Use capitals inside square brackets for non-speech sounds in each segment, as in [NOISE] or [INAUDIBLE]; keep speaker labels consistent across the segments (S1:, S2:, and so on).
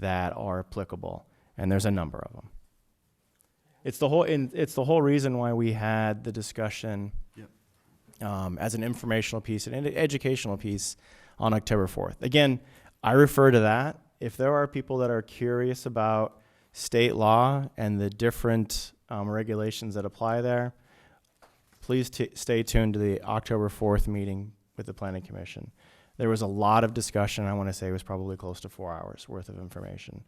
S1: that are applicable, and there's a number of them. It's the whole, and it's the whole reason why we had the discussion
S2: Yep.
S1: um, as an informational piece and an educational piece on October 4th. Again, I refer to that. If there are people that are curious about state law and the different um, regulations that apply there, please t- stay tuned to the October 4th meeting with the Planning Commission. There was a lot of discussion. I want to say it was probably close to four hours worth of information.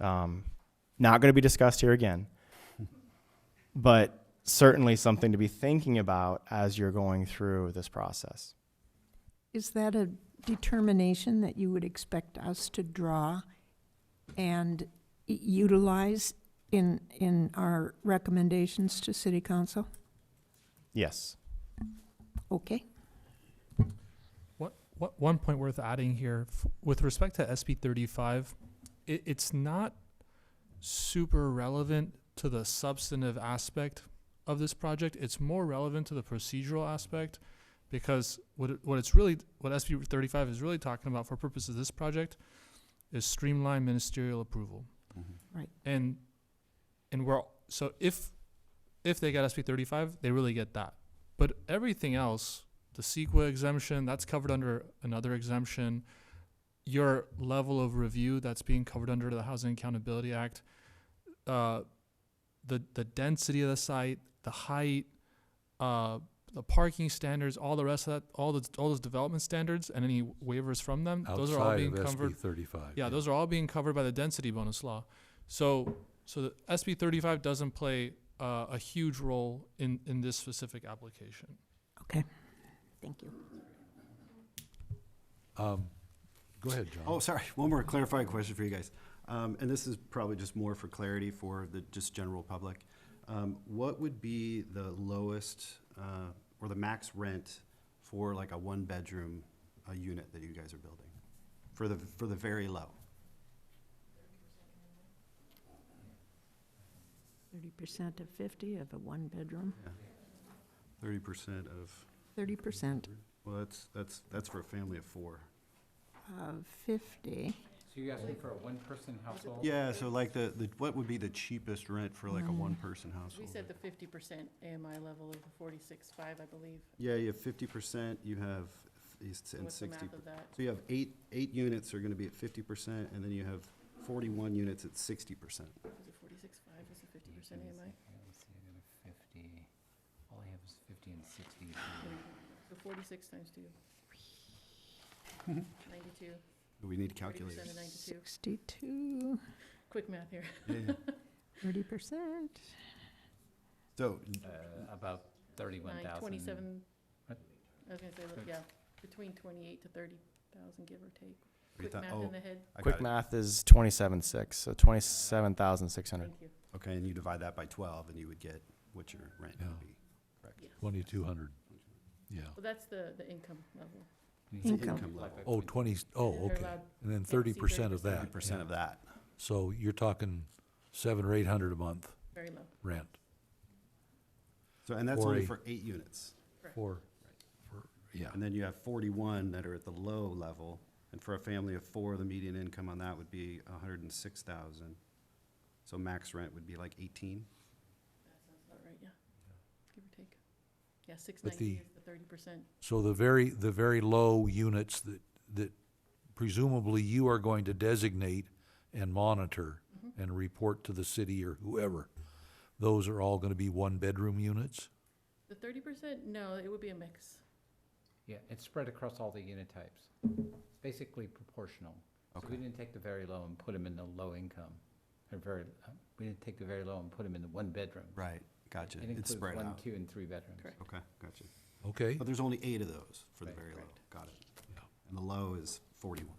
S1: Um, not going to be discussed here again, [LAUGHS] but certainly something to be thinking about as you're going through this process.
S3: Is that a determination that you would expect us to draw and y- utilize in, in our recommendations to city council?
S1: Yes.
S3: Okay,
S4: What, what, one point worth adding here f- with respect to SB 35, it, it's not super relevant to the substantive aspect of this project. It's more relevant to the procedural aspect because what, it, what it's really, what SB 35 is really talking about for purposes of this project is streamlined ministerial approval.
S2: Mhm.
S5: Mm-hmm.
S4: And, and we're, so if, if they got SB 35, they really get that. But everything else, the CEQA exemption, that's covered under another exemption. Your level of review, that's being covered under the Housing Accountability Act. Uh, the, the density of the site, the height, uh, the parking standards, all the rest of that, all the, all those development standards and any waivers from them, those are all
S2: Outside
S4: being
S2: of SB
S4: covered.
S2: Thirty-five.
S4: Yeah, those are all being covered by the density bonus law. So, so the SB thirty-five doesn't play, uh, a huge role in, in this specific application.
S3: thank you.
S2: Um, Go ahead, John.
S5: Oh, sorry, one more clarifying question for you guys. Um, and this is probably just more for clarity for the just general public. Um, what would be the lowest, uh, or the max rent for like a one-bedroom, uh unit that you guys are building? For the, for the very low?
S3: Thirty percent of fifty of a one-bedroom,
S5: Thirty percent of,
S3: thirty percent
S5: well, that's, that's, that's for a family of four.
S3: of fifty.
S6: So you're asking for a one-person household?
S5: Yeah, so like the, the, what would be the cheapest rent for like a one-person
S7: Mm. We
S5: household?
S7: said the fifty percent AMI level of the forty-six-five, I believe.
S5: Yeah, you have fifty percent, you have, it's, and
S7: What's the
S5: sixty
S7: math of that?
S5: So you have eight, eight units are gonna be at fifty percent, and then you have forty-one units at sixty percent.
S7: Was it forty-six-five, was it fifty percent
S6: Let me
S7: AMI?
S6: see, let me see, I got a fifty, all I have is fifty and sixty. uh,
S7: So forty-six times two. Ninety-two,
S5: We need
S7: forty percent
S5: calculators.
S7: of ninety-two.
S3: Sixty-two,
S7: Quick math here.
S3: thirty percent.
S5: So,
S6: Uh, about thirty-one
S7: Mm-hmm. Nine,
S6: thousand.
S7: twenty-seven. I
S6: What?
S7: was gonna say,
S6: Good.
S7: yeah, between twenty-eight to thirty thousand, give or take.
S5: we
S7: Quick
S5: thought-
S7: math
S5: oh,
S7: in the head,
S5: I
S1: Quick
S5: got it.
S1: math is 27.6, so 27,600.
S7: thank you.
S5: Okay, and you divide that by twelve, and you would get what your rent
S2: Yeah.
S5: would be.
S2: Twenty-two hundred, yeah.
S7: Well, that's the, the income level.
S6: Twenty-
S5: It's the
S3: Income.
S5: income level,
S2: Oh, twenty, oh,
S7: They're
S2: okay.
S7: allowed-
S2: And then
S7: see,
S2: thirty percent of
S7: 30%.
S2: that.
S5: thirty percent of that.
S2: So you're talking seven or eight hundred a month
S7: Very low.
S2: rent
S5: So, and that's
S2: Or
S5: only
S2: a-
S5: for eight units.
S2: for, for, yeah.
S5: And then you have forty-one that are at the low level, and for a family of four, the median income on that would be a hundred and six thousand. So max rent would be like eighteen?
S7: Is that right? Yeah. Give or take. Yeah, six
S2: But
S7: ninety
S2: the-
S7: is the thirty percent.
S2: So the very, the very low units that, that presumably you are going to designate and monitor and report to the city or whoever, those are all gonna be one-bedroom units?
S7: The thirty percent, no, it would be a mix.
S6: Yeah, it's spread across all the unit types. It's basically proportional. So we didn't take the very low and put them in the low income, or very, uh, we didn't take the very low and put them in the one bedroom.
S5: Right, gotcha.
S6: It
S5: It's
S6: includes
S5: spread
S6: one,
S5: out.
S6: two, and three bedrooms.
S7: Correct.
S5: Okay, gotcha.
S2: Okay,
S5: But there's only eight of those for the
S6: Right,
S5: very low.
S7: correct.
S5: Got it. And the low is forty-one.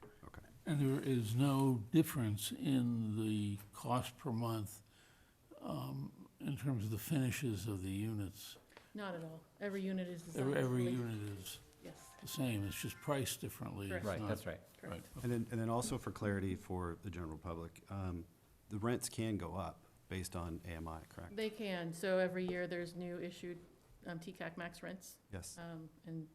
S5: Right, Okay.
S8: And there is no difference in the cost per month um, in terms of the finishes of the units.
S7: Not at all. Every unit is designed.
S8: Every, every
S7: equally.
S8: unit is
S7: Yes,
S8: the same, it's just priced differently. It's
S7: Correct.
S6: Right,
S8: not-
S6: that's right.
S7: correct.
S5: And then, and then also for clarity for the general public, um, the rents can go up based on AMI, correct?
S7: They can. So every year, there's new issued um, TCAC max rents,
S5: Yes,
S7: um, and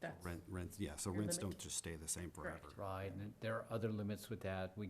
S7: that's.
S5: rent, rents, yeah, so
S7: Your
S5: rents
S7: limit.
S5: don't just stay the same forever.
S7: Correct.
S6: Right, and there are other limits with that. We